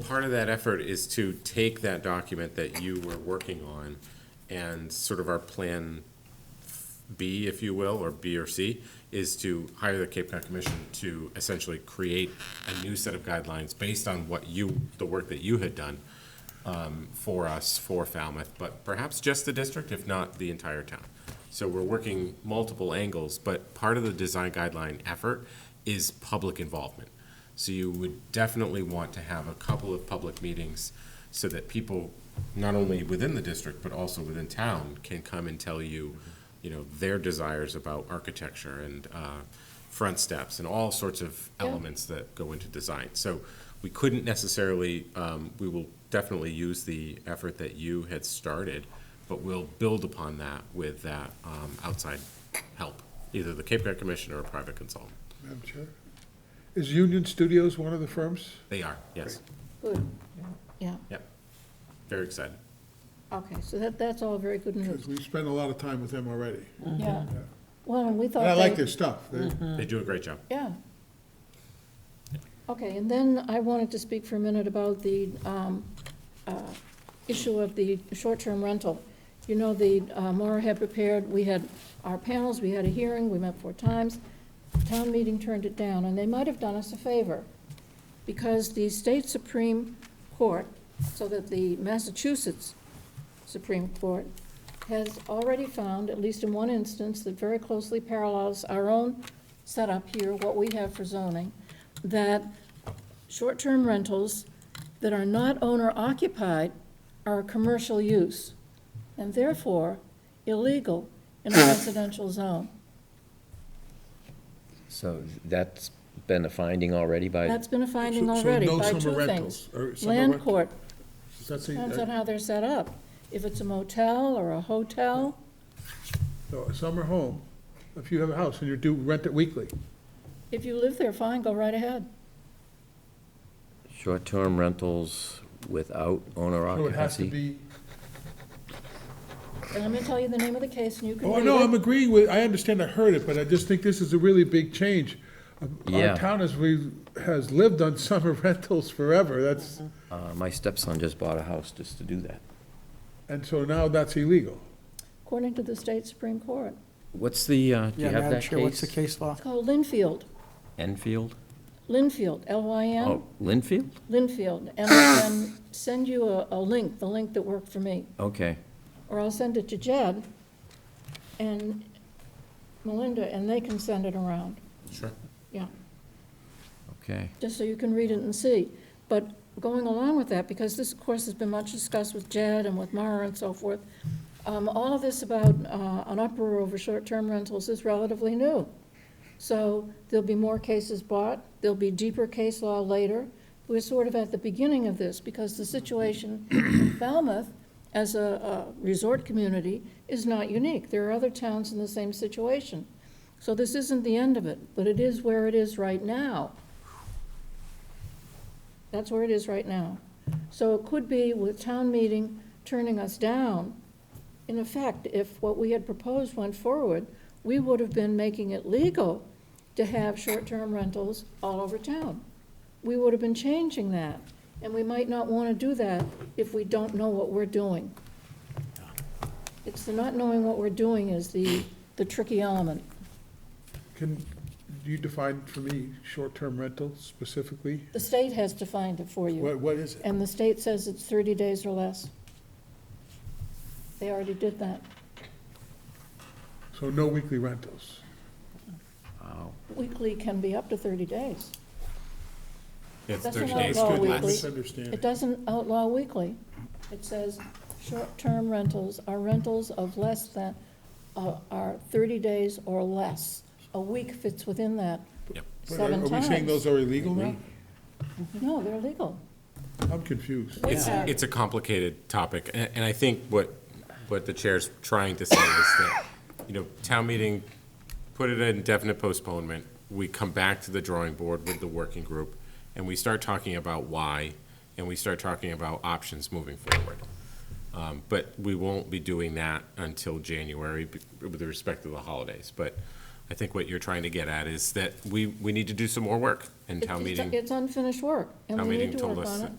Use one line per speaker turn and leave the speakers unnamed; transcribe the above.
part of that effort is to take that document that you were working on and sort of our plan B, if you will, or B or C, is to hire the Cape Cod Commission to essentially create a new set of guidelines based on what you, the work that you had done um, for us, for Falmouth, but perhaps just the district, if not the entire town. So we're working multiple angles, but part of the design guideline effort is public involvement. So you would definitely want to have a couple of public meetings so that people, not only within the district, but also within town, can come and tell you, you know, their desires about architecture and uh, front steps and all sorts of elements that go into design. So we couldn't necessarily, um, we will definitely use the effort that you had started, but we'll build upon that with that um, outside help, either the Cape Cod Commission or a private consultant.
Madam Chair? Is Union Studios one of the firms?
They are, yes.
Good, yeah,
Yep. Very excited.
okay, so that, that's all very good news,
Because we spent a lot of time with them already.
yeah. Well, and we thought
And I like
they-
their stuff. They-
Mm-hmm. Mm.
They do a great job.
Yeah. Okay, and then I wanted to speak for a minute about the um, uh, issue of the short-term rental. You know, the, uh, Maura had prepared, we had our panels, we had a hearing, we met four times. Town meeting turned it down, and they might have done us a favor, because the state Supreme Court, so that the Massachusetts Supreme Court has already found, at least in one instance, that very closely parallels our own setup here, what we have for zoning, that short-term rentals that are not owner-occupied are a commercial use, and therefore illegal in a residential zone.
So that's been a finding already by,
That's been a finding
So- so
already
no
by
summer
two
rentals,
things.
or summer
Land
rent-
court,
Is that the-
depends on how they're set up. If it's a motel or a hotel,
no, a Summer home. If you have a house and you do rent it weekly,
if you live there, fine, go right ahead.
short-term rentals without owner
so it has to
occupancy?
be.
And let me tell you the name of the case, and you can
Oh,
read
no, I'm
it.
agreeing with, I understand I heard it, but I just think this is a really big change. Um, Our
Yeah.
town has, we, has lived on summer rentals forever. That's,
Mm-hmm.
Uh, my stepson just bought a house just to do that.
and so now that's illegal.
According to the state Supreme Court.
What's the, uh, do you
Yeah,
have
Madam
that
Chair, what's the
case?
case law?
It's called Linfield,
Enfield?
Linfield, L-Y-N,
Oh, Linfield?
Linfield. And I can send you a, a link, the link that worked for me,
Okay,
or I'll send it to Jed and Melinda, and they can send it around,
Sure.
yeah.
okay.
just so you can read it and see. But going along with that, because this, of course, has been much discussed with Jed and with Mara and so forth, um, all of this about uh, an uproar over short-term rentals is relatively new. So there'll be more cases brought, there'll be deeper case law later. We're sort of at the beginning of this, because the situation in Falmouth as a a resort community is not unique. There are other towns in the same situation. So this isn't the end of it, but it is where it is right now. That's where it is right now. So it could be with town meeting turning us down, in effect, if what we had proposed went forward, we would have been making it legal to have short-term rentals all over town. We would have been changing that, and we might not want to do that if we don't know what we're doing. It's the not knowing what we're doing is the, the tricky element.
Can you define for me short-term rental specifically?
The state has defined it for you.
What, what is it?
And the state says it's 30 days or less. They already did that.
So no weekly rentals.
Wow.
Weekly can be up to 30 days.
It's
That's
30
an
days
outlaw
to
weekly.
less.
It
Misunderstanding.
doesn't outlaw weekly. It says short-term rentals are rentals of less than, uh, are 30 days or less. A week fits within that
Yep.
seven
Are we saying
times.
those are illegal now?
No, they're legal.
I'm confused.
We
It's,
are-
it's a complicated topic, and, and I think what, what the chair's trying to say is that, you know, town meeting, put it at indefinite postponement, we come back to the drawing board with the working group, and we start talking about why, and we start talking about options moving forward. Um, but we won't be doing that until January be- with respect to the holidays, but I think what you're trying to get at is that we, we need to do some more work, and
It's-
town
it's-
meeting,
It's unfinished work, and
town
we
meeting
need to
told
work
us
on
that
it.